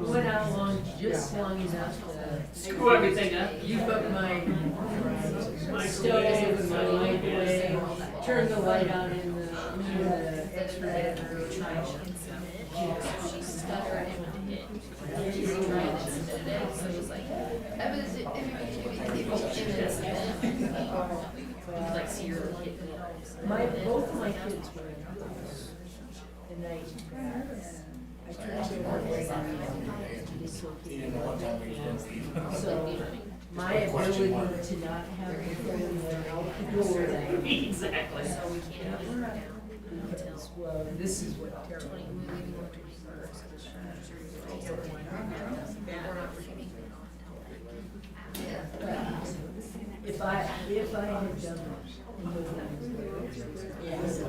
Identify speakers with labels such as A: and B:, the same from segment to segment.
A: Went out long, just long enough to
B: Screw everything up.
A: you put my stove, my microwave, turn the light on in the, in the extra bedroom.
C: She stuck her in. She's trying to submit it, so it's like, I was, if you could do it, people in this event, you like see your kid.
A: My, both of my kids were in the house. And I, I turned to one way and So, my ability to not have the phone there out the door that
B: Exactly.
C: So we can't. have it now until
A: is, well, this is what terrible.
C: Twenty, we leave on twenty-first. We're not forgetting.
A: If I, if I had done it. Yes.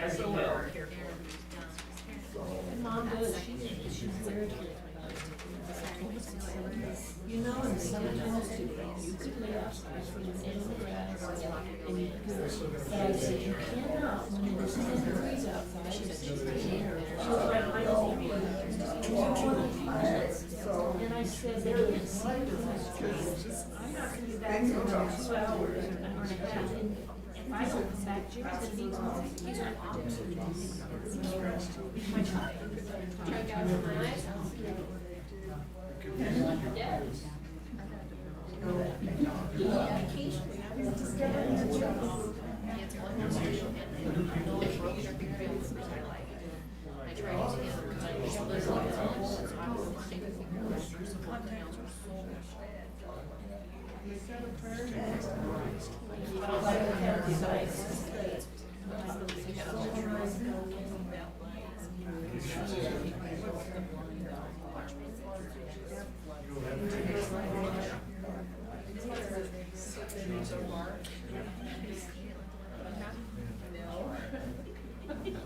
B: As it will.
A: Mom does, she's, she's very good. You know, and sometimes too, you could lay upstairs from the end of the grass and you could, and I said, you cannot, when it's ten degrees outside, it's just a hair. She was like, I don't want to be here." So, And I said, there is sleep in this house. I'm not gonna be back till about two hours, an hour and a half. And If I don't come back, Jim's gonna be gone. He's an opportunity.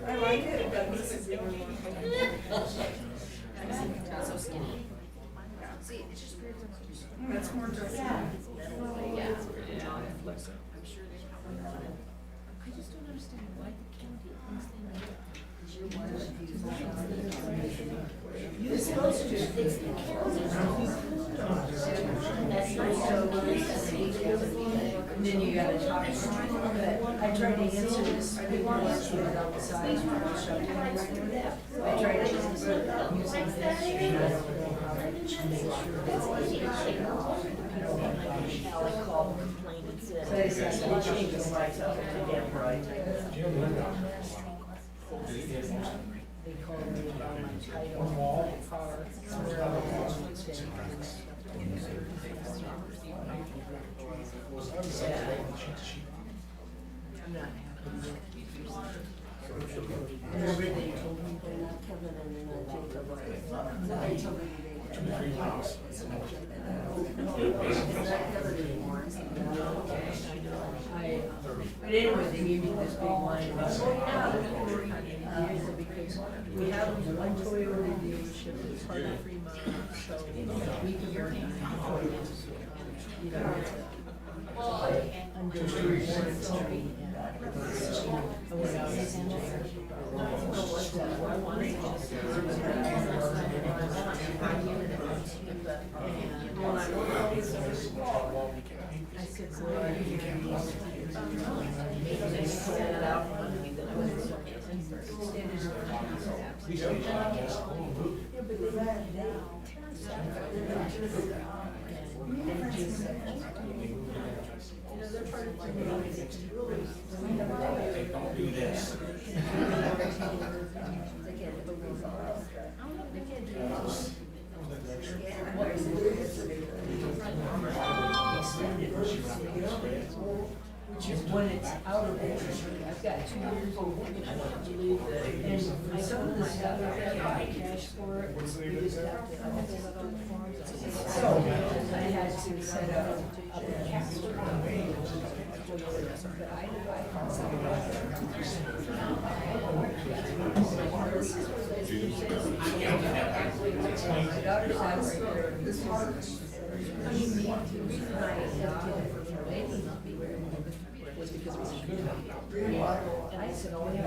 D: I like it, but this is even more.
C: So skinny. See, it's just weird.
D: That's more dressy.
C: Yeah.
A: You're supposed to, it's the That's not so And then you gotta talk. But I tried to answer this, I didn't want to do it outside. I tried to answer it using this. So I said, "Well, change the lights up to damn bright." They called me about my title, my car, where I was on Tuesday. Yeah. I'm not happy. Remember they told me they're not coming and then I took the They told me they. It's not covered anymore. I, but anyway, they gave me this big line about, oh, yeah, they're gonna work on it, uh, because we have one Toyota dealership that's part of Fremont, so we can work on it. You know, under warranty. I went out and- I don't know what that- I wanted to just- And when I went out, I said, well, are you gonna be used to it?" And they said, "I don't want to be that way." So I said, Yeah, but they ran it down. And just- You know, they're part of the community. It's really- Which is when it's out of order. I've got two years old, and I don't believe that. And some of the stuff I have to cash for it, we just have to. So I had to set up a cash. But I, I, my daughter's house right there. This is. I mean, the reason I adopted her from Lady was because it was a good. And I said, oh, yeah.